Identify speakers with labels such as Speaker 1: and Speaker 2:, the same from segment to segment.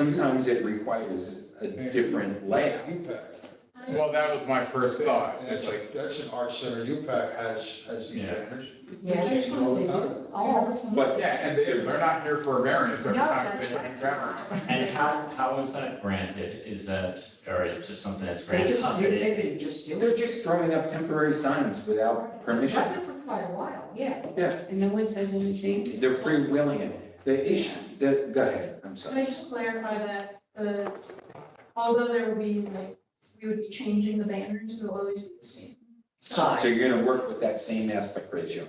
Speaker 1: Sometimes it requires a different layout.
Speaker 2: U-Pack.
Speaker 3: Well, that was my first thought, it's like,
Speaker 2: That's an art center, U-Pack has, has these
Speaker 3: Yeah.
Speaker 2: banners.
Speaker 4: Yeah, that's what they do, all the time.
Speaker 1: But
Speaker 3: yeah, and they, they're not here for a variance every
Speaker 4: Yeah,
Speaker 3: time,
Speaker 4: that's
Speaker 3: they
Speaker 4: right.
Speaker 3: bring variance.
Speaker 5: And how, how is that granted? Is that, or is it just something that's
Speaker 4: They
Speaker 5: granted?
Speaker 4: just do, they've been just doing.
Speaker 1: they're just throwing up temporary signs without permission.
Speaker 4: I've been for quite a while, yeah.
Speaker 1: Yes.
Speaker 4: And no one says anything.
Speaker 1: They're freewheeling it. The issue, the, go ahead, I'm
Speaker 6: Can I
Speaker 1: sorry.
Speaker 6: just clarify that, the, although there would be like, we would be changing the banners, they'll always be the same.
Speaker 1: So
Speaker 4: Side.
Speaker 1: you're gonna work with that same aspect ratio.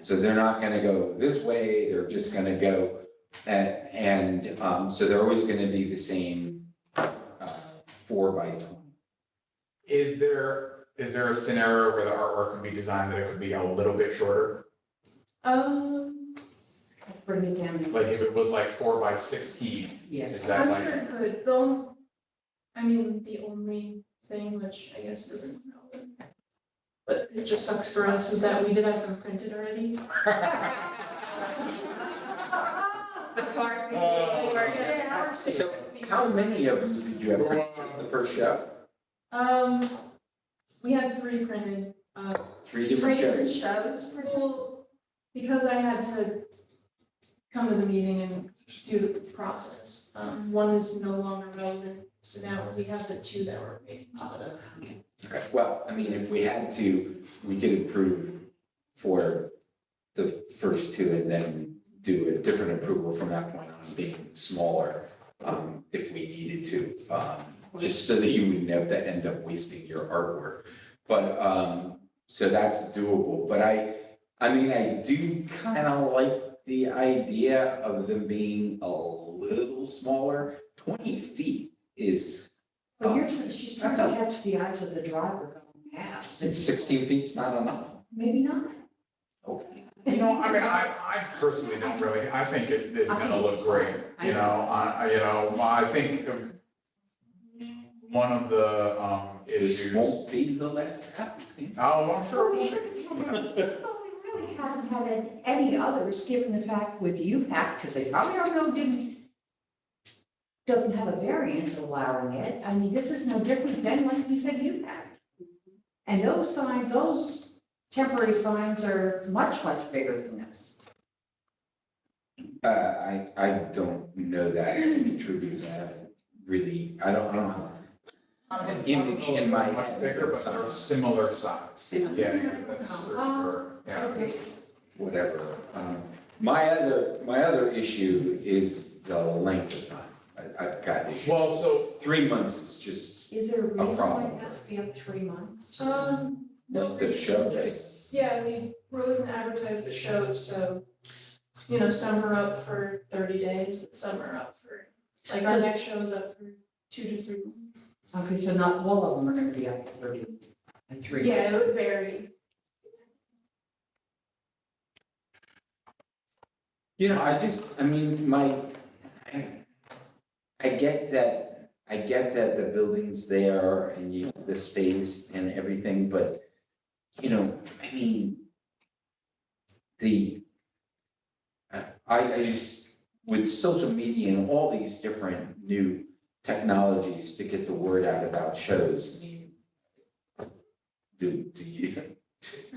Speaker 1: So they're not gonna go this way, they're just gonna go, and, and, um, so they're always gonna be the same, uh, four by twenty.
Speaker 3: Is there, is there a scenario where the artwork could be designed that it could be a little bit shorter?
Speaker 6: Um,
Speaker 4: Bring it down.
Speaker 3: Like if it was like four by sixteen, is
Speaker 4: Yes.
Speaker 3: that
Speaker 6: I'm sure
Speaker 3: like,
Speaker 6: it could, though, I mean, the only thing which I guess isn't relevant. But it just sucks for us is that we did have them printed already.
Speaker 4: The card.
Speaker 3: Oh.
Speaker 1: So how many of them did you have? printed? Just the first show?
Speaker 6: Um, we had three printed, uh,
Speaker 1: Three different
Speaker 6: Three different
Speaker 1: shows?
Speaker 6: shows, pretty cool, because I had to come to the meeting and do the process. Um, one is no longer relevant, so now we have the two that were made public.
Speaker 1: Okay, Well, I mean, if we had to, we could approve for the first two and then do a different approval from that point on, being smaller, um, if we needed to, um, just so that you wouldn't have to end up wasting your artwork. But, um, so that's doable, but I, I mean, I do kind of like the idea of them being a little smaller. Twenty feet is,
Speaker 4: But you're, she's trying to catch the eyes of the driver going past.
Speaker 1: and sixteen feet's not enough.
Speaker 4: Maybe not.
Speaker 1: Okay.
Speaker 3: you know, I mean, I, I personally don't really, I think it is
Speaker 4: I think
Speaker 3: gonna
Speaker 4: it's
Speaker 3: look great,
Speaker 4: fine.
Speaker 3: you know, I, I- you know, I think um, one of the, um,
Speaker 1: This
Speaker 3: issues, oh,
Speaker 1: won't be the last applicant.
Speaker 3: I'm sure it will be.
Speaker 4: Well, we really haven't had an- any others, given the fact with U-Pack, because they probably don't know, didn't, doesn't have a variance allowing it. I mean, this is no different than, like you said, U-Pack. And those signs, those temporary signs are much, much bigger than this.
Speaker 1: Uh, I, I don't know that to be true because I haven't really, I don't, I don't know. An image in my
Speaker 3: Much
Speaker 1: head.
Speaker 3: Bigger, but they're similar size. Yeah, that's for sure, yeah.
Speaker 1: whatever. Um, My other, my other issue is the length of time. I, I've got issues.
Speaker 3: Well, so,
Speaker 1: Three months is just,
Speaker 4: Is there a
Speaker 1: A
Speaker 4: reason why
Speaker 1: problem.
Speaker 4: it has to be up three months?
Speaker 6: Um, no
Speaker 1: Like the show,
Speaker 6: reason, just- yeah, we really didn't advertise the show, so, you know, some are up for thirty days, but some are up for, like, our
Speaker 4: So-
Speaker 6: next show is up for two to three months.
Speaker 4: Okay, so not all of them are gonna be up to thirty and three.
Speaker 6: Yeah, it would vary.
Speaker 1: you know, I just, I mean, my, I, I get that, I get that the building's there and you, the space and everything, but, you know, I mean, the, I, I just, with social media and all these different new technologies to get the word out about shows, I mean, do, do you,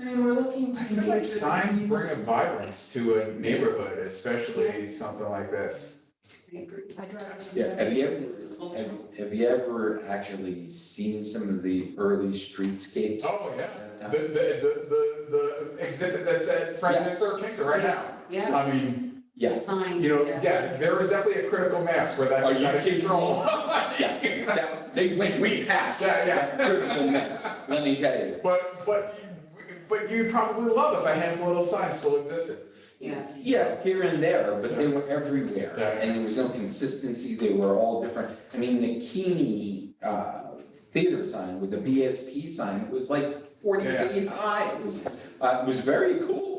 Speaker 6: I mean, we're looking to.
Speaker 3: I feel like
Speaker 6: make-
Speaker 3: signs bring a vibrance to a neighborhood, especially something like this.
Speaker 1: yeah, have you ever, have, have you ever actually seen some of the early streetscapes?
Speaker 3: Oh, yeah. The, the, the, the, the exhibit that's at Francis or King's right now.
Speaker 4: Yeah,
Speaker 3: I mean,
Speaker 1: Yes.
Speaker 4: signs.
Speaker 3: you know, yeah, there is definitely a critical mass where that.
Speaker 1: Are you
Speaker 3: got out of
Speaker 1: kidding me?
Speaker 3: control.
Speaker 1: Yeah, they, we, we passed.
Speaker 3: Yeah, yeah.
Speaker 1: Critical mass, let me tell you.
Speaker 3: But, but, you- but you'd probably love if a handful of those signs still existed.
Speaker 4: Yeah.
Speaker 1: Yeah, here and there, but they were everywhere.
Speaker 3: Yeah.
Speaker 1: And there was no consistency, they were all different. I mean, the Keeney, uh, theater sign with the BSP sign was like forty
Speaker 3: Yeah.
Speaker 1: feet high. It was, uh, it was very cool.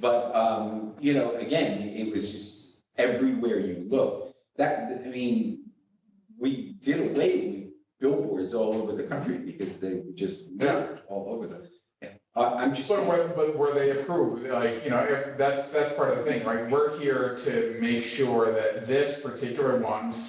Speaker 1: But, um, you know, again, it was just everywhere you look. That, I mean, we did away with billboards all over the country because they were just
Speaker 3: Yeah.
Speaker 1: littered all over the. I- I'm just
Speaker 3: But
Speaker 1: saying,
Speaker 3: were, but were they approved? Like, you know, if- that's, that's part of the thing, right? We're here to make sure that this particular one